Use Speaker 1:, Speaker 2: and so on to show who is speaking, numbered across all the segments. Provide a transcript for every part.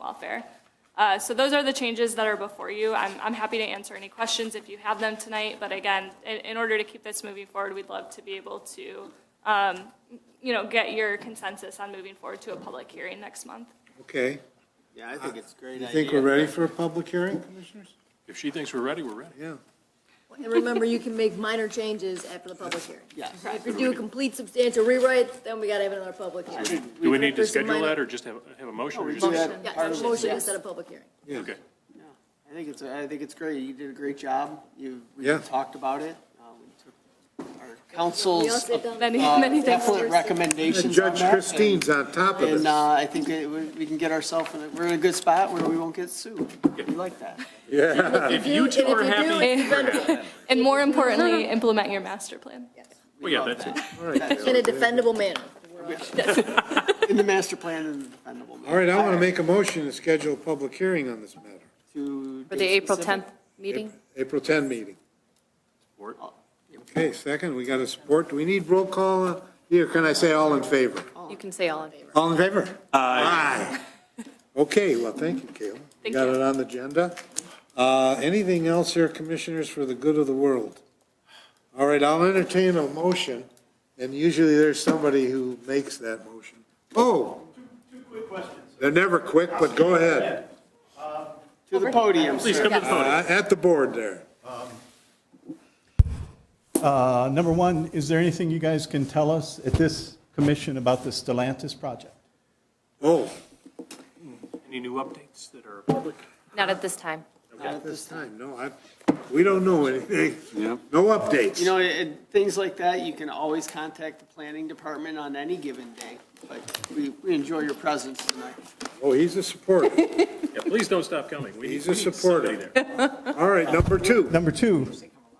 Speaker 1: welfare. Uh, So those are the changes that are before you. I'm, I'm happy to answer any questions if you have them tonight, but again, in, in order to keep this moving forward, we'd love to be able to, um, you know, get your consensus on moving forward to a public hearing next month.
Speaker 2: Okay.
Speaker 3: Yeah, I think it's a great
Speaker 2: You
Speaker 3: idea.
Speaker 2: think we're ready for a public hearing, commissioners?
Speaker 4: If she thinks we're ready, we're ready.
Speaker 2: Yeah.
Speaker 5: And remember, you can make minor changes after the public hearing.
Speaker 3: Yeah.
Speaker 5: If you do a complete substantial rewrite, then we gotta have another public hearing.
Speaker 4: Do we need to
Speaker 5: There's some
Speaker 4: schedule
Speaker 5: minor-
Speaker 4: that or just have, have a motion? or just-
Speaker 3: Motion.
Speaker 5: Yeah,
Speaker 3: Part of it,
Speaker 5: motion
Speaker 3: yes.
Speaker 5: instead of public hearing.
Speaker 4: Okay.
Speaker 3: Yeah, I think it's, I think it's great. You did a great job. You, we
Speaker 2: Yeah.
Speaker 3: talked about it. Uh, we took Our
Speaker 5: We all
Speaker 3: council's
Speaker 5: sit down.
Speaker 1: Many,
Speaker 3: uh,
Speaker 1: many thanks.
Speaker 3: definite recommendations
Speaker 2: And
Speaker 3: on
Speaker 2: Judge
Speaker 3: that, and-
Speaker 2: Christine's on top of
Speaker 3: And
Speaker 2: it.
Speaker 3: uh, I think that we we can get ourselves, in a- we're in a good spot where we won't get sued. We like that.
Speaker 4: If you two
Speaker 5: and if
Speaker 4: are
Speaker 5: you do,
Speaker 4: happy,
Speaker 5: it's
Speaker 4: we're happy.
Speaker 1: And more importantly, implement your master plan.
Speaker 4: Well, yeah, that's it.
Speaker 5: In a defendable manner.
Speaker 3: In the master plan and the defendable.
Speaker 2: All right, I want to make a motion to schedule a public hearing on this matter.
Speaker 3: To.
Speaker 6: For the
Speaker 3: date
Speaker 6: April
Speaker 3: specific?
Speaker 6: 10th meeting?
Speaker 2: April 10 meeting.
Speaker 4: Support.
Speaker 2: Okay, second, we got a support. Do we need roll call uh, here? Can I say all in favor?
Speaker 6: You can say all in favor.
Speaker 2: All in favor? Aye. Okay, well, thank you, Kayla.
Speaker 1: Thank
Speaker 2: Got
Speaker 1: you.
Speaker 2: it on the agenda. Uh, Anything else here, commissioners, for the good of the world? All right, I'll entertain a motion, and usually there's somebody who makes that motion. Oh,
Speaker 7: Two quick questions.
Speaker 2: they're never quick, but go ahead.
Speaker 3: To the podium,
Speaker 4: Please
Speaker 3: sir.
Speaker 4: come to the podium.
Speaker 2: Uh, At the board there.
Speaker 7: Uh, Number one, is there anything you guys can tell us at this commission about the Stellantis project?
Speaker 2: Oh,
Speaker 4: Any new updates that are public?
Speaker 6: Not at this time.
Speaker 3: Not at
Speaker 2: this time, no, I, we don't know anything. No updates.
Speaker 3: You know, and things like that, you can always contact the planning department on any given day, but we, we enjoy your presence tonight.
Speaker 2: Oh, he's a supporter.
Speaker 4: Yeah, please don't stop coming. We
Speaker 2: He's
Speaker 4: need-
Speaker 2: a
Speaker 4: we need somebody
Speaker 2: supporter.
Speaker 4: there.
Speaker 2: All right, number two.
Speaker 7: Number two,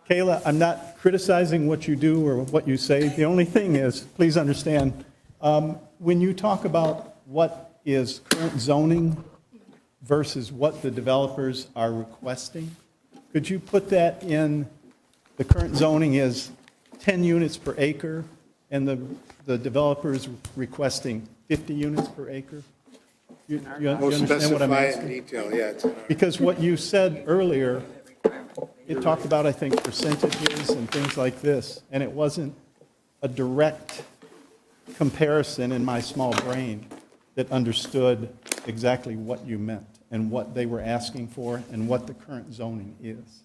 Speaker 7: Kayla, I'm not criticizing what you do or what you say. The only thing is, please understand, um, when you talk about what is current zoning versus what the developers are requesting, could you put that in, the current zoning is 10 units per acre, and the, the developer's requesting 50 units per acre? You you
Speaker 2: We'll
Speaker 7: understand what I'm
Speaker 2: specify it
Speaker 7: asking?
Speaker 2: in detail, yeah. it's in our-
Speaker 7: Because what you said earlier, it talked about, I think, percentages and things like this, and it wasn't a direct comparison in my small brain that understood exactly what you meant and what they were asking for and what the current zoning is.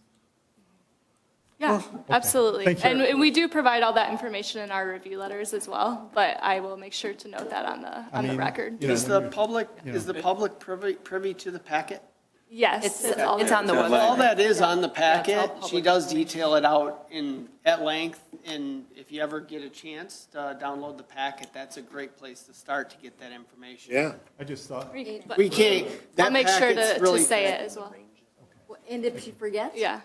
Speaker 1: Yeah, absolutely.
Speaker 7: Oh, Thank you.
Speaker 1: And and we do provide all that information in our review letters as well, but I will make sure to note that on the,
Speaker 7: I
Speaker 1: on the
Speaker 7: mean,
Speaker 1: record.
Speaker 7: you know,
Speaker 3: Is the public, is the public privy, privy to the packet?
Speaker 1: Yes.
Speaker 6: It's,
Speaker 1: all
Speaker 6: it's
Speaker 1: there.
Speaker 6: on the
Speaker 3: Well, All
Speaker 6: website.
Speaker 3: that is on the
Speaker 6: Yeah,
Speaker 3: packet.
Speaker 6: it's all
Speaker 3: She does detail it out in, at length, and if you ever get a chance to download the packet, that's a great place to start to get that information.
Speaker 2: Yeah,
Speaker 7: I just thought,
Speaker 1: But
Speaker 3: We can't,
Speaker 1: I'll
Speaker 3: that
Speaker 1: make sure
Speaker 3: packet's
Speaker 1: to, to
Speaker 3: really.
Speaker 1: say it as well.
Speaker 5: And if she forgets,
Speaker 1: Yeah.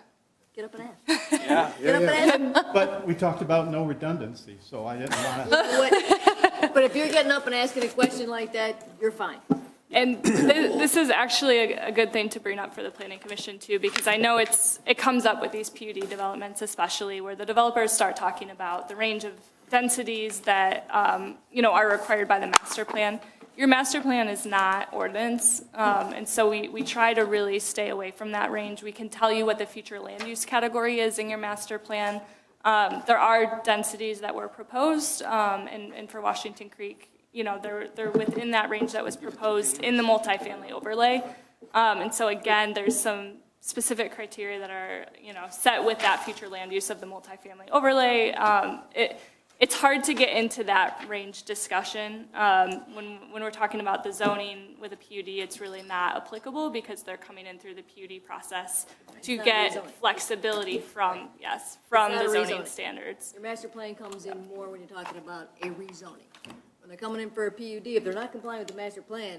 Speaker 5: get up and ask.
Speaker 3: Yeah.
Speaker 5: Get up and ask.
Speaker 7: but we talked about no redundancy, so I didn't want to,
Speaker 5: What- But if you're getting up and asking a question like that, you're fine.
Speaker 1: And th- this is actually a, a good thing to bring up for the planning commission too, because I know it's, it comes up with these PUD developments especially, where the developers start talking about the range of densities that, um, you know, are required by the master plan. Your master plan is not ordinance, um, and so we, we try to really stay away from that range. We can tell you what the future land use category is in your master plan. Um, there are densities that were proposed, um, and, and for Washington Creek, you know, they're, they're within that range that was proposed in the multifamily overlay. Um, and so again, there's some specific criteria that are, you know, set with that future land use of the multifamily overlay. Um, it, it's hard to get into that range discussion. Um, when, when we're talking about the zoning with a PUD, it's really not applicable because they're coming in through the PUD process to
Speaker 5: not rezoning.
Speaker 1: get flexibility from, yes, from
Speaker 5: It's
Speaker 1: the
Speaker 5: not
Speaker 1: zoning
Speaker 5: rezoning.
Speaker 1: standards.
Speaker 5: Your master plan comes in more when you're talking about a rezoning. When they're coming in for a PUD, if they're not complying with the master plan,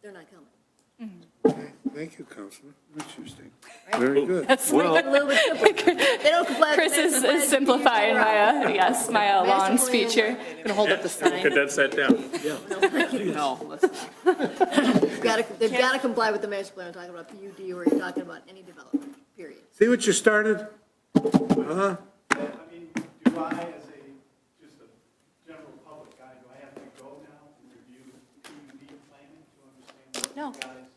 Speaker 5: they're not coming.
Speaker 2: thank you, Councilman. Interesting. Very good.
Speaker 1: That's like
Speaker 5: A little bit simpler. They don't comply with
Speaker 1: Chris
Speaker 5: the master
Speaker 1: is,
Speaker 5: plan.
Speaker 1: is simplifying
Speaker 5: you're out.
Speaker 1: my, uh, yes, my uh, long
Speaker 5: Master plan.
Speaker 1: speech here.
Speaker 6: I'm gonna hold up the
Speaker 4: Look at
Speaker 6: sign.
Speaker 4: that set down.
Speaker 3: No, let's not.
Speaker 5: They've got to, they've got to comply with the master plan, I'm talking about PUD or you're talking about any development, period.
Speaker 2: See what you started?
Speaker 7: I mean, do I, as a, just a general public guy, do I have to go now and review PUD planning to understand
Speaker 6: No,